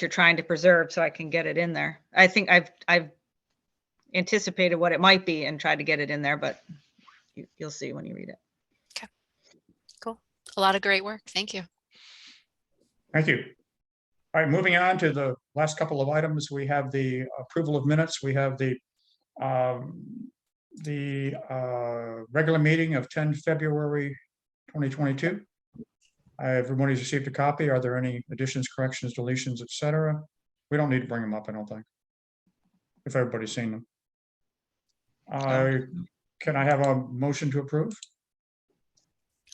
you're trying to preserve so I can get it in there. I think I've, I've anticipated what it might be and tried to get it in there, but you, you'll see when you read it. A lot of great work. Thank you. Thank you. All right, moving on to the last couple of items, we have the approval of minutes. We have the um, the uh, regular meeting of 10 February 2022. Uh, Everybody's received a copy. Are there any additions, corrections, deletions, et cetera? We don't need to bring them up, I don't think. If everybody's seen them. Uh, Um, Can I have a motion to approve?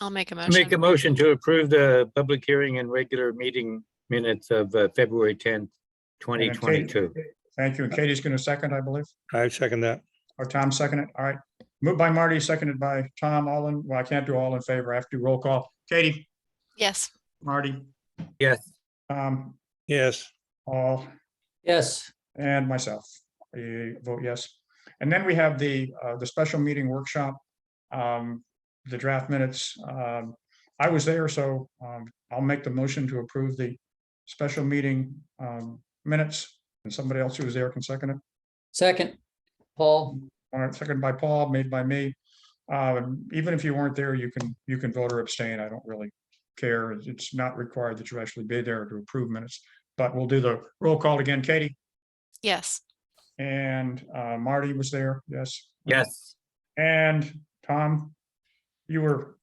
I'll make a Make a motion. motion to approve the public hearing and regular meeting minutes of uh, February tenth, twenty And Kate- twenty-two. Thank you. And Katie's going to second, I believe. I second that. Or Tom second it. All right. Moved by Marty, seconded by Tom. All in, well, I can't do all in favor. I have to do roll call. Katie, Yes, Marty, Yes, Tom, Yes, all, Yes, and myself. I vote yes. And then we have the, uh, the special meeting workshop. Um, the draft minutes. Um, I was there, so, um, I'll make the motion to approve the special meeting, um, minutes. And somebody else who was there can second it. second, Paul, All right, second by Paul, made by me. Um, Even if you weren't there, you can, you can vote or abstain. I don't really care. It's not required that you actually be there to approve minutes. But we'll do the roll call again. Katie yes, and uh, Marty was there, yes. yes, And Tom, you were,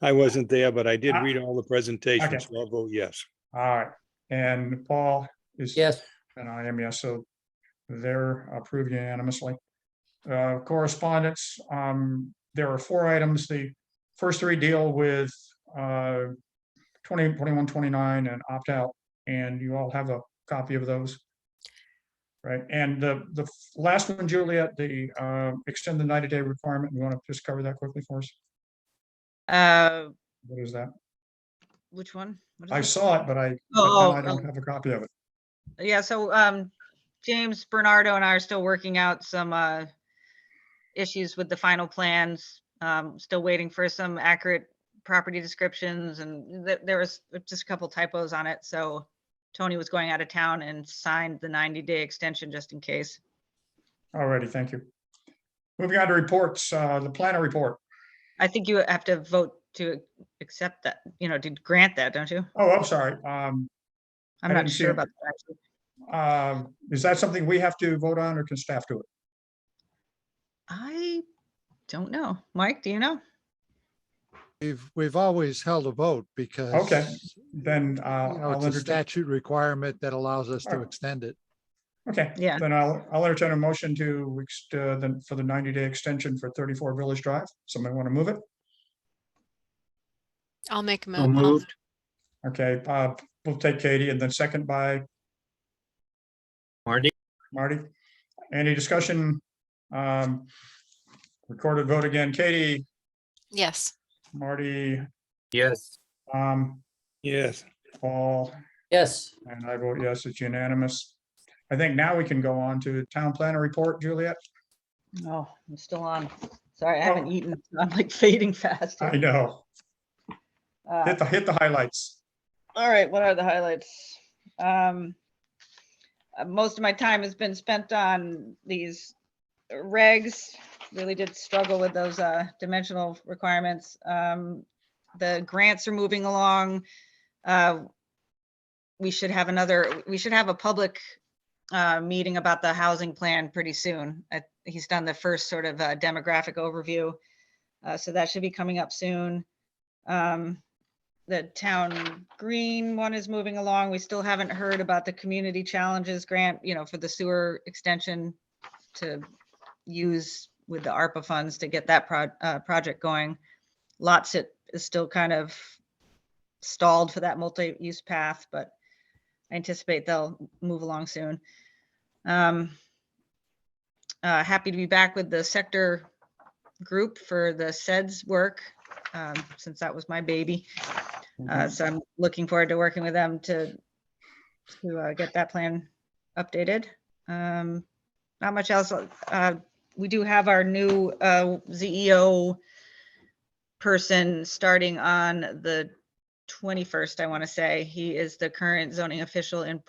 I wasn't there, but I did Ah. read all the Okay. presentations, so I'll vote yes. all right. And Paul is. yes, And I am, yes, so they're approved unanimously. Uh, Correspondence, um, there are four items. The first three deal with uh, 20, 21, 29 and opt-out, and you all have a copy of those. Right, and the, the f- last one, Juliet, the uh, extend the 90-day requirement, you want to just cover that quickly for us? Uh, What is that? which one? What is I it? saw it, but I, but Oh, then I oh, don't have a copy of it. Yeah, so, um, James Bernardo and I are still working out some, uh, issues with the final plans, um, still waiting for some accurate property descriptions and th- there was just a couple typos on it, so Tony was going out of town and signed the ninety day extension just in case. All righty, thank you. Moving on to reports, uh, the planner report. I think you have to vote to accept that, you know, to grant that, don't you? Oh, I'm sorry. Um, I I'm not didn't see sure it. about that. actually. uh, is that something we have to vote on or can staff do it? I don't know. Mike, do you know? We've, we've always held a vote because. Then, uh, You know, I'll it's a entertain, statute requirement that allows us to Alright. extend it. okay. Yeah. Then I'll, I'll entertain a motion to, ex- uh, then for the ninety day extension for thirty-four Village Drive. Somebody want to move it? I'll make a so motion. moved, Okay, uh, we'll take Katie and then second by Marty, Marty. Any discussion? Um, recorded vote again. Katie, Yes, Marty, yes, um, Yes, Paul, yes, and I vote yes, it's unanimous. I think now we can go on to town planner report, Juliet. No, I'm still on. Sorry, I Oh. haven't eaten. so I'm like fading fast. I here. know. Uh, Hit the, hit the highlights. All right, what are the highlights? Um, uh, most of my time has been spent on these regs. Really did struggle with those, uh, dimensional requirements. Um, the grants are moving along. Uh, we should have another, we should have a public, uh, meeting about the housing plan pretty soon. Uh, he's done the first sort of uh, demographic overview. Uh, so that should be coming up soon. Um, the town green one is moving along. We still haven't heard about the community challenges grant, you know, for the sewer extension to use with the ARPA funds to get that proj- uh, project going. Lots it is still kind of stalled for that multi-use path, but I anticipate they'll move along soon. Um, uh, happy to be back with the sector group for the SEDS work, um, since that was my baby. Uh, so I'm looking forward to working with them to, to, uh, get that plan updated. Um, not much else. uh, Uh, we do have our new, E uh, ZEO person starting on the 21st, I want to say. He is the current zoning official in